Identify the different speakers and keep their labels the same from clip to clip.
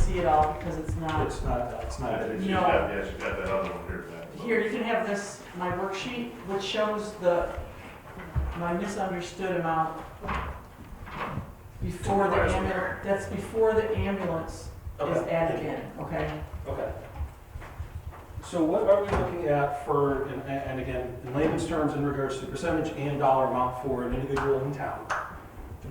Speaker 1: see it all because it's not.
Speaker 2: It's not, it's not.
Speaker 1: think
Speaker 3: Yes,
Speaker 1: you
Speaker 3: you
Speaker 1: No.
Speaker 3: got,
Speaker 1: got-
Speaker 3: that other one here, Matt.
Speaker 1: Here, you can have this, my worksheet, which shows the, my misunderstood amount before the
Speaker 3: Right.
Speaker 1: ambulance, that's before the ambulance is
Speaker 2: Okay.
Speaker 1: added in, okay?
Speaker 2: Okay. So what are we looking at for, and- and again, in layman's terms, in regards to percentage and dollar amount for an individual in town?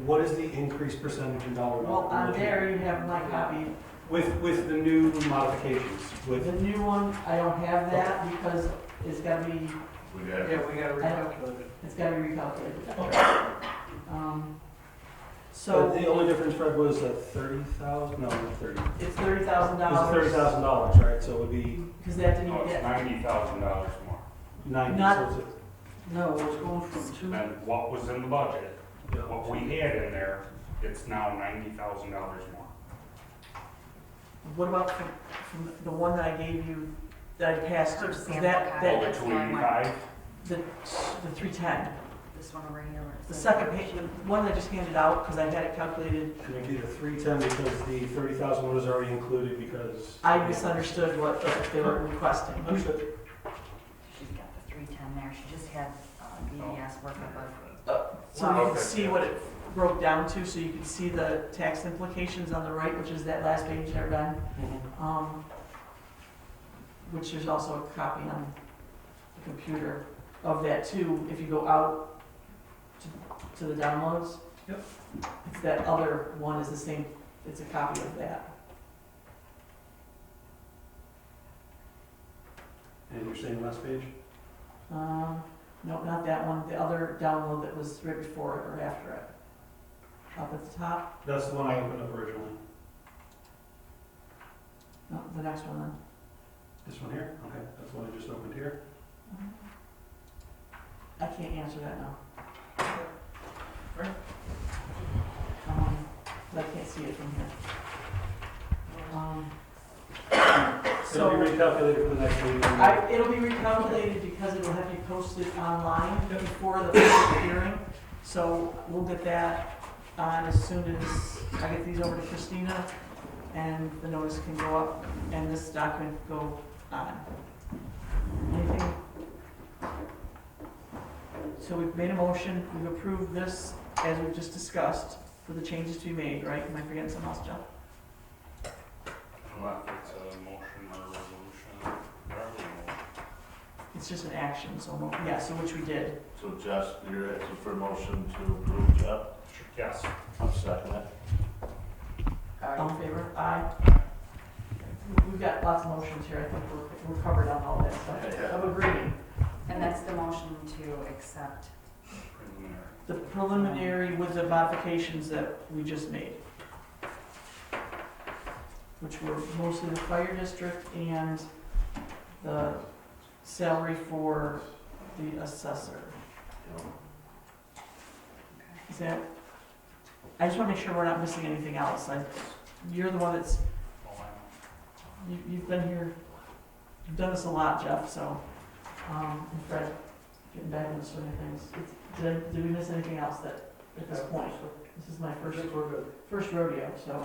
Speaker 2: What is the increased percentage in dollar amount?
Speaker 1: Well,
Speaker 2: we're
Speaker 1: on
Speaker 2: looking at?
Speaker 1: there, you have my copy.
Speaker 2: With, with the new modifications,
Speaker 1: The
Speaker 2: with,
Speaker 1: new one, I don't have that because it's gotta be,
Speaker 3: We got,
Speaker 4: Yeah, we gotta recalculate it.
Speaker 1: it's gotta be recalculated. Um,
Speaker 2: but
Speaker 1: So
Speaker 2: the only difference, Fred, was a thirty thousand, no, not thirty. It
Speaker 1: it's thirty thousand dollars.
Speaker 2: was thirty thousand dollars, right, so it would be
Speaker 1: Because that didn't
Speaker 5: No, Oh, it's
Speaker 1: get,
Speaker 5: ninety thousand dollars more.
Speaker 2: ninety,
Speaker 1: Not-
Speaker 2: so it's a-
Speaker 4: No, it's going from
Speaker 1: Mm-hmm.
Speaker 4: two,
Speaker 5: And what was in the budget,
Speaker 2: yeah.
Speaker 5: what we had in there, it's now ninety thousand dollars more.
Speaker 1: what about from, from the one that I gave you, that I passed,
Speaker 6: Or
Speaker 1: is
Speaker 6: sample
Speaker 1: that,
Speaker 6: copy.
Speaker 1: that,
Speaker 5: Over
Speaker 6: that's
Speaker 5: two
Speaker 6: the one.
Speaker 5: eighty-five,
Speaker 1: the, the three ten?
Speaker 6: This one over here. where it
Speaker 1: The
Speaker 6: says-
Speaker 1: second page, the one that I just handed out, because I had it calculated,
Speaker 2: And it'd be the three ten because the thirty thousand was already included because.
Speaker 1: I misunderstood what they were requesting.
Speaker 2: Understood.
Speaker 6: She's got the three ten there, she just had uh,
Speaker 4: Oh.
Speaker 6: BDS work above.
Speaker 1: So you can
Speaker 5: Okay.
Speaker 1: see what it broke down to, so you can see the tax implications on the right, which is that last page there, Ben. Um, Which there's also a copy on the computer of that too, if you go out to- to the downloads.
Speaker 2: Yep.
Speaker 1: It's that other one is the same, it's a copy of that.
Speaker 2: And you're saying last page?
Speaker 1: Um, No, not that one, the other download that was right before it or after it. Up at the top,
Speaker 2: That's the one I opened up originally.
Speaker 1: no, the next one then.
Speaker 2: This one here? Okay, that's the one I just opened here.
Speaker 1: I can't answer that now.
Speaker 2: Alright.
Speaker 1: Um, I can't see it from here. Um,
Speaker 2: It'll be
Speaker 1: So,
Speaker 2: recalculated for the next meeting.
Speaker 1: I, it'll be recalculated because it'll have to be posted online before the public hearing. So we'll get that on as soon as I get these over to Christina and the notice can go up and this document go on. Anything? So we've made a motion, we've approved this as we've just discussed for the changes to be made, right? Am I forgetting something else, Joe?
Speaker 5: unless it's a motion or a resolution, whatever you want.
Speaker 1: It's just an action, so, mo- yeah, so which we did.
Speaker 3: so Josh, you're asking for a motion to approve, Jeff?
Speaker 5: Yes,
Speaker 3: I'm second it.
Speaker 1: All in favor? Aye. We've got lots of motions here, I think we're, we're covered on all that stuff.
Speaker 3: Yeah.
Speaker 1: Of agreeing,
Speaker 6: And that's the motion to accept.
Speaker 5: preliminary.
Speaker 1: the preliminary with the modifications that we just made. Which were mostly the fire district and the salary for the assessor. Is that, I just wanna make sure we're not missing anything else, I, you're the one that's
Speaker 5: Oh, I
Speaker 1: You, you've been here, you've done this a lot, Jeff, so, um, and Fred, getting back into swing of things. It's- Did, I- did we miss anything else that, at this point? This is my
Speaker 4: I
Speaker 1: first,
Speaker 4: think we're good.
Speaker 1: first rodeo, so,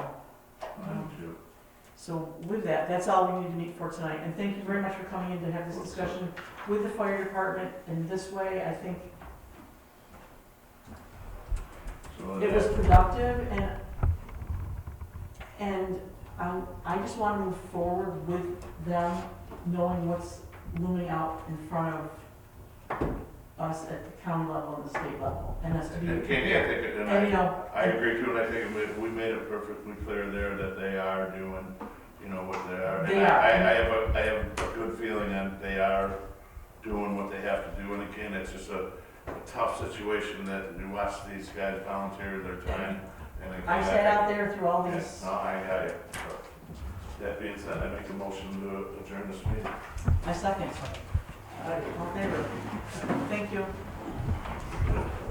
Speaker 3: Mine too.
Speaker 1: so with that, that's all we need to meet for tonight. And thank you very much for coming in to have this discussion with the fire department in this way. I think
Speaker 3: So
Speaker 1: it was productive and, and um, I just want to move forward with them knowing what's looming out in front of us at the county level and the state level, and that's to be.
Speaker 3: And Katie, I think, and
Speaker 1: And, you
Speaker 3: I,
Speaker 1: know,
Speaker 3: I agree too, and I think we, we made it perfectly clear there that they are doing, you know, what they are. And
Speaker 1: They
Speaker 3: I-
Speaker 1: are.
Speaker 3: I, I have a, I have a good feeling that they are doing what they have to do, and again, it's just a a tough situation that you watch these guys volunteer their time. and again,
Speaker 1: I sat out there through all
Speaker 3: Yeah,
Speaker 1: these,
Speaker 3: No, I got it. That being said, I make a motion to adjourn this meeting.
Speaker 1: I second. All in favor? Thank you.